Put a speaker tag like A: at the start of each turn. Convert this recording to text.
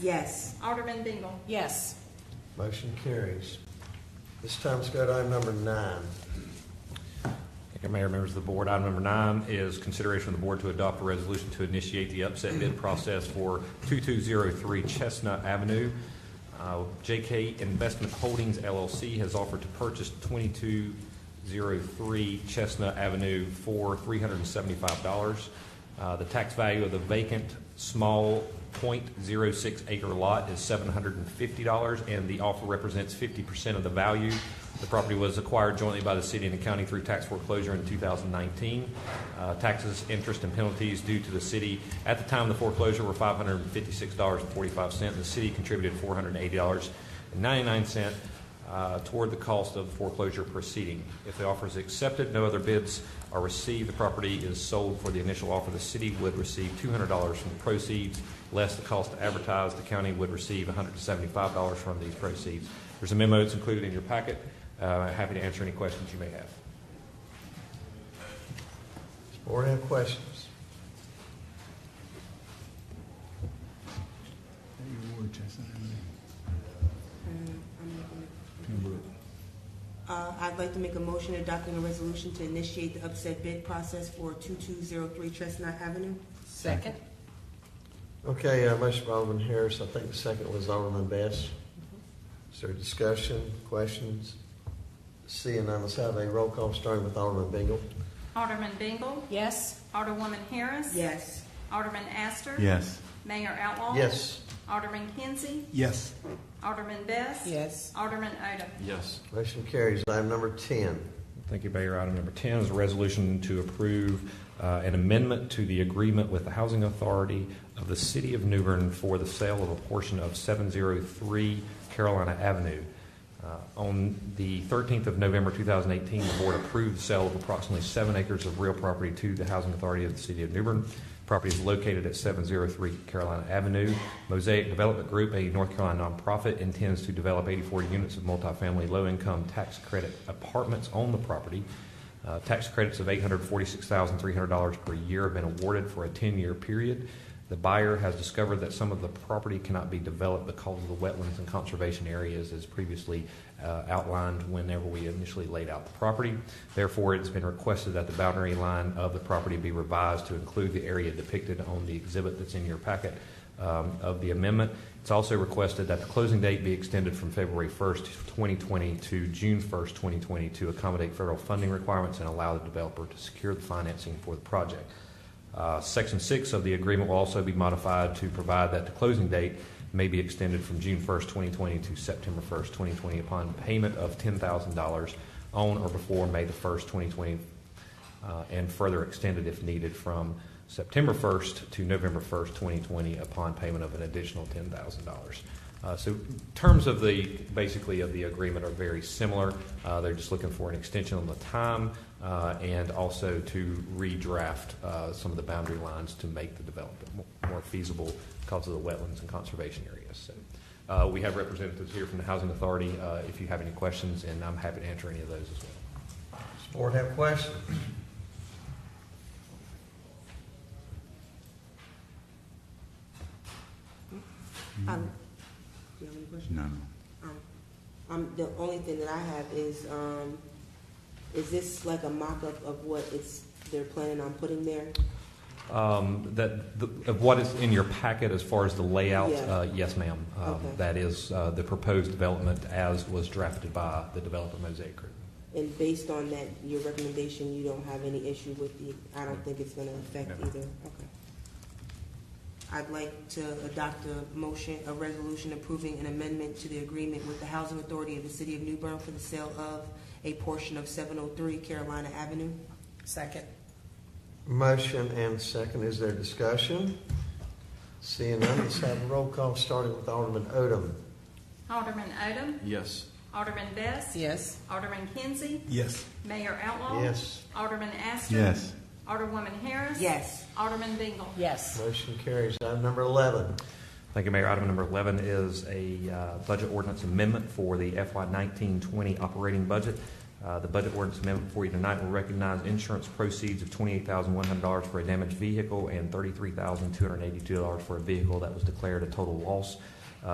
A: Yes.
B: Alderman Bingle.
C: Yes.
D: Motion carries. This time, let's go to item number nine.
E: Thank you, Mayor, members of the board. Item number nine is consideration of the board to adopt a resolution to initiate the upset bid process for 2203 Chestnut Avenue. Uh, JK Investment Holdings LLC has offered to purchase 2203 Chestnut Avenue for $375. Uh, The tax value of the vacant small .06 acre lot is $750, and the offer represents 50% of the value. The property was acquired jointly by the city and the county through tax foreclosure in 2019. Uh, Taxes, interest, and penalties due to the city at the time of the foreclosure were $556.45. The city contributed $480.99 uh, toward the cost of the foreclosure proceeding. If the offer is accepted, no other bids are received, the property is sold for the initial offer. The city would receive $200 from proceeds, less the cost to advertise. The county would receive $175 from these proceeds. There's a memo that's included in your packet. Uh, Happy to answer any questions you may have.
D: Does the board have questions?
F: Your word, Chestnut Avenue,
A: Um, I'm making-
F: Pembroke.
A: Uh, I'd like to make a motion adopting a resolution to initiate the upset bid process for 2203 Chestnut Avenue.
C: Second?
D: Okay, uh, motion by Alderman Harris, I think the second was Alderman Best. Is there discussion, questions? Seeing none, let's have a roll call starting with Alderman Bingle.
B: Alderman Bingle.
C: Yes.
B: Alderwoman Harris.
A: Yes.
B: Alderman Astor.
F: Yes.
B: Mayor Outlaw.
D: Yes,
B: Alderman Kinsey.
F: Yes.
B: Alderman Best.
C: Yes.
B: Alderman Odom.
E: Yes.
D: motion carries. Item number 10.
E: Thank you, Mayor. Item number 10 is a resolution to approve uh, an amendment to the agreement with the Housing Authority of the City of New Bern for the sale of a portion of 703 Carolina Avenue. Uh, On the 13th of November 2018, the board approved the sale of approximately seven acres of real property to the Housing Authority of the City of New Bern. Property is located at 703 Carolina Avenue. Mosaic Development Group, a North Carolina nonprofit, intends to develop 84 units of multifamily low-income tax credit apartments on the property. Uh, Tax credits of $846,300 per year have been awarded for a 10-year period. The buyer has discovered that some of the property cannot be developed because of the wetlands and conservation areas as previously uh, outlined whenever we initially laid out the property. Therefore, it's been requested that the boundary line of the property be revised to include the area depicted on the exhibit that's in your packet um, of the amendment. It's also requested that the closing date be extended from February 1st, 2020 to June 1st, 2020 to accommodate federal funding requirements and allow the developer to secure the financing for the project. Uh, Section 6 of the agreement will also be modified to provide that the closing date may be extended from June 1st, 2020 to September 1st, 2020 upon payment of $10,000 on or before May the 1st, 2020, uh, and further extended if needed from September 1st to November 1st, 2020 upon payment of an additional $10,000. Uh, So terms of the, basically of the agreement are very similar. Uh, They're just looking for an extension on the time uh, and also to redraft uh, some of the boundary lines to make the development mo- more feasible because of the wetlands and conservation areas. So uh, we have representatives here from the Housing Authority uh, if you have any questions, and I'm happy to answer any of those as well.
D: Does the board have questions?
A: Um, do you have any questions?
F: No, no.
A: Um, Um, the only thing that I have is, um, is this like a mock-up of what it's, they're planning on putting there?
E: Um, That, the- of what is in your packet as far as the layout?
A: Yeah.
E: uh, Yes, ma'am. Um,
A: Okay.
E: That is uh, the proposed development as was drafted by the developer Mosaic Group.
A: And based on that, your recommendation, you don't have any issue with the, I don't think it's gonna affect
E: No.
A: either, okay. I'd like to adopt a motion, a resolution approving an amendment to the agreement with the Housing Authority of the City of New Bern for the sale of a portion of seven oh three Carolina Avenue.
C: Second?
D: Motion and second, is there discussion? Seeing none, let's have a roll call starting with Alderman Odom.
B: Alderman Odom.
F: Yes.
B: Alderman Best.
C: Yes.
B: Alderman Kinsey.
F: Yes.
B: Mayor Outlaw.
D: Yes,
B: Alderman Astor.
F: Yes.
B: Alderwoman Harris.
A: Yes,
B: Alderman Bingle.
C: Yes.
D: motion carries. Item number 11.
E: Thank you, Mayor. Item number 11 is a uh, budget ordinance amendment for the FY 1920 operating budget. Uh, The budget ordinance amendment before you tonight will recognize insurance proceeds of $28,100 for a damaged vehicle and $33,282 for a vehicle that was declared a total loss